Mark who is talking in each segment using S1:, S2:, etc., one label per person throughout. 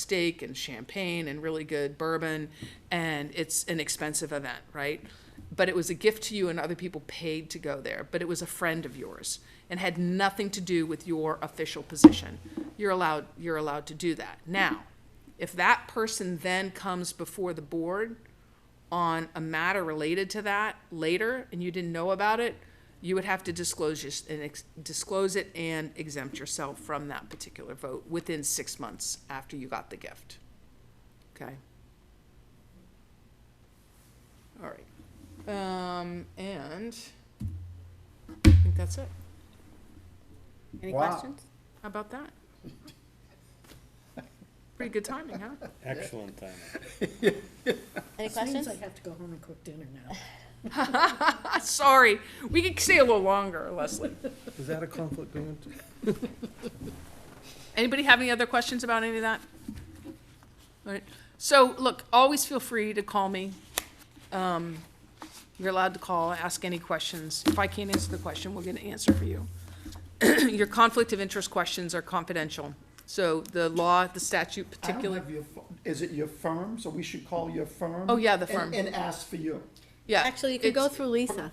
S1: steak and champagne and really good bourbon, and it's an expensive event, right? But it was a gift to you, and other people paid to go there. But it was a friend of yours and had nothing to do with your official position. You're allowed, you're allowed to do that. Now, if that person then comes before the board on a matter related to that later and you didn't know about it, you would have to disclose your, and ex- disclose it and exempt yourself from that particular vote within six months after you got the gift. Okay? All right. Um, and I think that's it.
S2: Any
S3: Wow.
S2: questions?
S1: How about that? Pretty good timing, huh?
S4: Excellent timing.
S2: Any
S5: Seems
S2: questions?
S5: I have to go home and cook dinner now.
S1: Ah, Sorry, we could stay a little longer, Leslie.
S3: Is that a conflict going to?
S1: Anybody have any other questions about any of that? All right, so, look, always feel free to call me. Um, You're allowed to call, ask any questions. If I can't answer the question, we'll get an answer for you. Your conflict of interest questions are confidential, so the law, the statute
S3: I don't
S1: particular,
S3: have your pho- Is it your firm? So we should call your firm?
S1: Oh, yeah, the
S3: and-
S1: firm.
S3: And ask for you.
S1: yeah.
S2: Actually, you could go
S1: it's-
S2: through Lisa.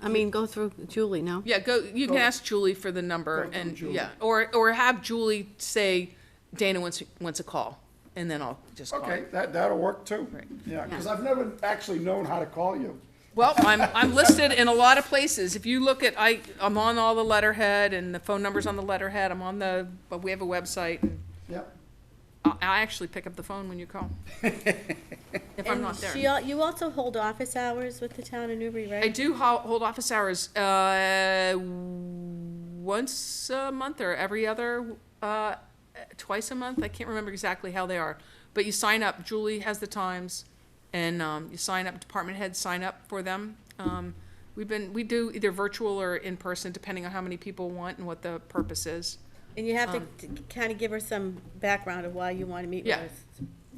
S2: I mean, go through Julie, no?
S1: Yeah, go, you can
S3: Go-
S1: ask Julie for the number
S3: Go through
S1: and,
S3: Julie.
S1: yeah, or, or have Julie say Dana wants, wants a call, and then I'll just call.
S3: Okay, that, that'll work too.
S1: Right.
S3: Yeah, because I've never actually known how to call you.
S1: Well, I'm, I'm listed in a lot of places. If you look at, I, I'm on all the letterhead and the phone number's on the letterhead. I'm on the, but we have a website. and
S3: Yep.
S1: I, I actually pick up the phone when you call. If I'm
S2: And
S1: not
S2: she
S1: there.
S2: al- You also hold office hours with the town of Newbury,
S1: I
S2: right?
S1: do ho- hold office hours, uh, once a month or every other, uh, twice a month. I can't remember exactly how they are. But you sign up, Julie has the times, and, um, you sign up, department heads sign up for them. Um, we've been, we do either virtual or in person, depending on how many people want and what the purpose is.
S2: And you have to kind of give her some background of why you want to meet with
S1: um, Yeah.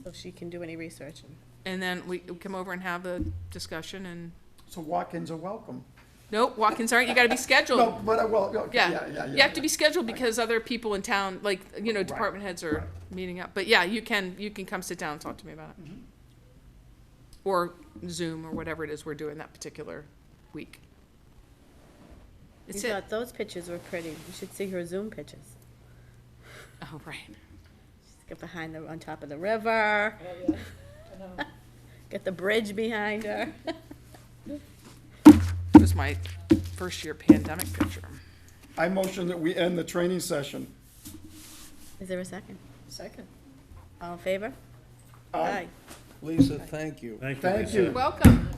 S2: us, so she can do any research. and-
S1: And then we come over and have the discussion and,
S3: So walk-ins are welcome.
S1: nope, walk-ins aren't, you gotta be scheduled.
S3: No, but I will, okay, yeah, yeah,
S1: Oh. Yeah,
S3: yeah.
S1: you have to be scheduled because other people in town, like, you know,
S3: Right,
S1: department heads are meeting up. But yeah, you can, you can come sit down and talk to me about it.
S3: Mm-hmm.
S1: Or Zoom or whatever it is we're doing that particular week.
S2: You
S1: It's it.
S2: thought those pictures were pretty. You should see her Zoom pictures.
S1: Oh, right.
S2: Get behind the, on top of the river,
S1: Oh,
S2: get the bridge behind her.
S1: It was my first year pandemic picture.
S3: I motion that we end the training session.
S2: Is there a second?
S5: Second.
S2: All in favor?
S3: Aye.
S2: Aye.
S6: Lisa, thank you.
S4: Thank you,
S3: Thank
S4: Lisa.
S3: you.
S1: Welcome.